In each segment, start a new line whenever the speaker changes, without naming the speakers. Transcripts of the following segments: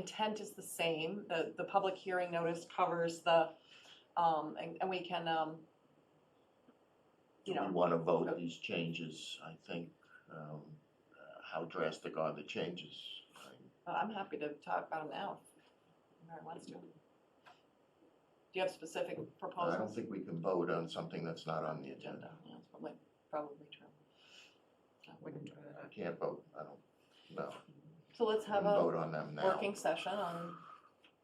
intent is the same. The, the public hearing notice covers the, um, and, and we can, um, you
Do we
know,
wanna vote these changes, I think, um, uh, how drastic are the changes? I-
but I'm happy to talk about them now if anyone wants to. Do you have specific proposals?
I don't think we can vote on something that's not on the
Agenda,
agenda.
yeah, it's probably, probably true. I wouldn't try
I
that.
can't vote, I don't, no,
So let's
we can
have a
vote on them now.
working session on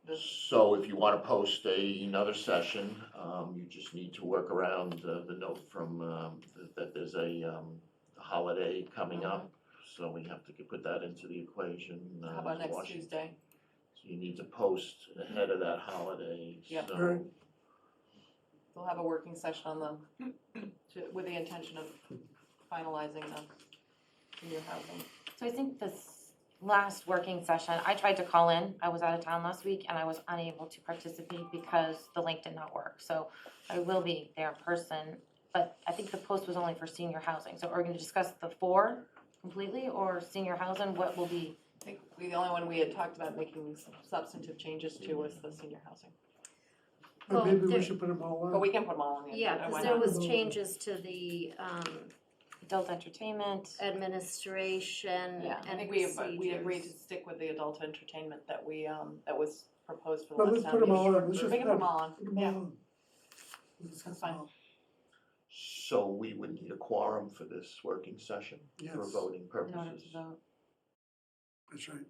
this,
So if you wanna post a, another session, um, you just need to work around the, the note from, um, that- that there's a, um, holiday coming up. So we have to put that into the equation. uh,
Uh-huh. how about next
Washington.
Tuesday?
So you need to post ahead of that holiday,
Yep.
so.
We'll have a working session on them, to, with the intention of finalizing the senior housing.
So I think this last working session, I tried to call in, I was out of town last week and I was unable to participate because the link did not work. So I will be there in person, but I think the post was only for senior housing, so are we gonna discuss the four completely or senior housing, what will be?
I think we, the only one we had talked about making s- substantive changes to was the senior housing,
But
Well,
maybe we
there-
should put them all
but
on.
we can put them all on the
Yeah,
agenda, why
because
not?
there was changes to the um,
Adult entertainment,
administration
Yeah, I
and
think we, but we agreed to
procedures.
stick with the adult entertainment that we, um, that was proposed for the
But
last
let's
time.
put them all on, let's
We
just.
can put them all on,
Put them all
yeah,
on. We'll discuss them
Fine.
all.
So we would need a quorum for this working session for
Yes,
voting
in order
purposes.
to vote.
that's right.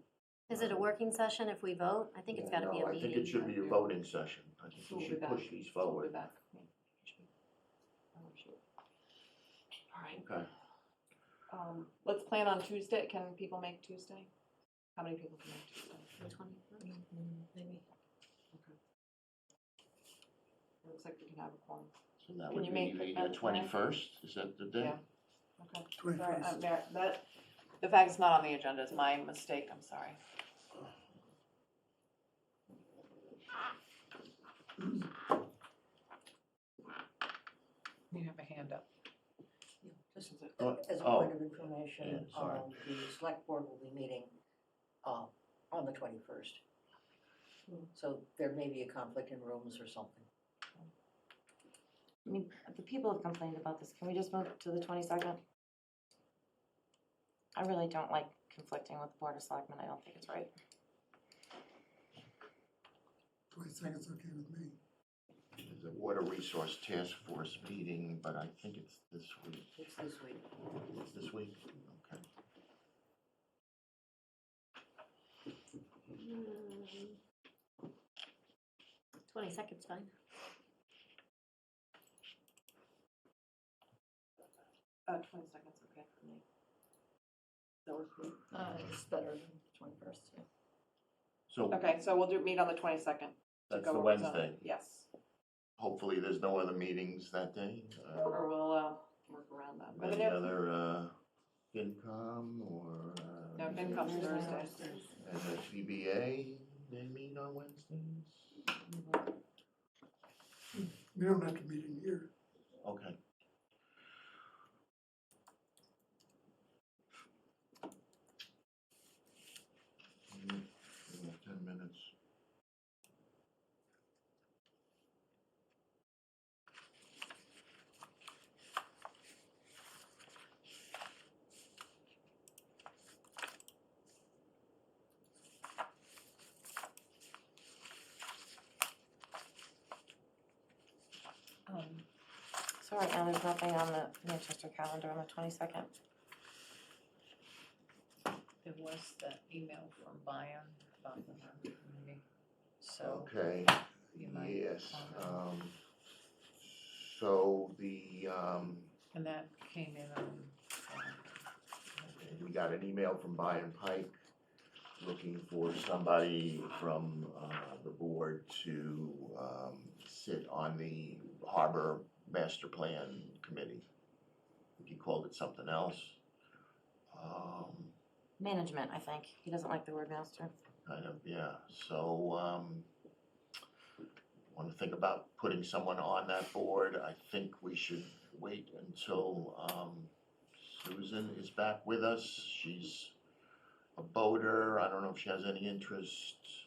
Is it a working session if we vote? I think it's gotta be
No,
a
I think it
meeting.
should be a voting session. I think
We'll
we
be
should
back.
push these
so we'll be
forward.
back. Yeah, should we? Oh, shoot. All right,
Okay,
um, let's plan on Tuesday, can people make Tuesday? How many people can make Tuesday? Mm,
The 21st.
Maybe. Looks like we can have a quorum.
so that
Can
would
you make
be
it
the
that time?
twenty-first, is that the day?
Yeah. Okay.
Twenty
Sorry,
first.
uh, Mar- that, the fact it's not on the agenda is my mistake, I'm sorry.
You have a hand up.
Just as a-
Oh,
as a
oh,
point of information,
yeah, sorry.
um, the select board will be meeting uh, on the twenty-first. So there may be a conflict in rooms or something.
I mean, the people have complained about this, can we just move to the twenty-second? I really don't like conflicting with the Board of Selectmen, I don't think it's right.
Twenty second's okay with me.
There's a water resource task force meeting, but I think it's this week,
It's this week.
it's this week, okay.
Twenty seconds, fine.
Uh, twenty seconds, okay, for me. That works for me.
It's better than twenty-first, yeah.
So
Okay, so we'll do, meet on the twenty-second.
that's the Wednesday.
Yes,
Hopefully, there's no other meetings that day. uh,
or we'll, uh, work around that. But
Any
it-
other, uh, FinCom or, uh?
No, FinCom's Thursday.
And the CBA, they meet on Wednesdays?
We don't have to meet in here.
Okay. Mm, we have Ten minutes.
Um, So right now, there's nothing on the Manchester calendar on the twenty-second.
There was that email from Bayan about the Harvard meeting, so
Okay,
Oh. you might
yes,
comment.
um, so the, um,
and that came in on. uh,
And we got an email from Byron Pike looking for somebody from uh, the board to um, sit on the Harbor Master Plan Committee. I think He called it something else. Um,
Management, I think. He doesn't like the word master.
Kind of, yeah, so, um, wanna think about putting someone on that board, I think we should wait until, um, Susan is back with us, she's a boater, I don't know if she has any interest,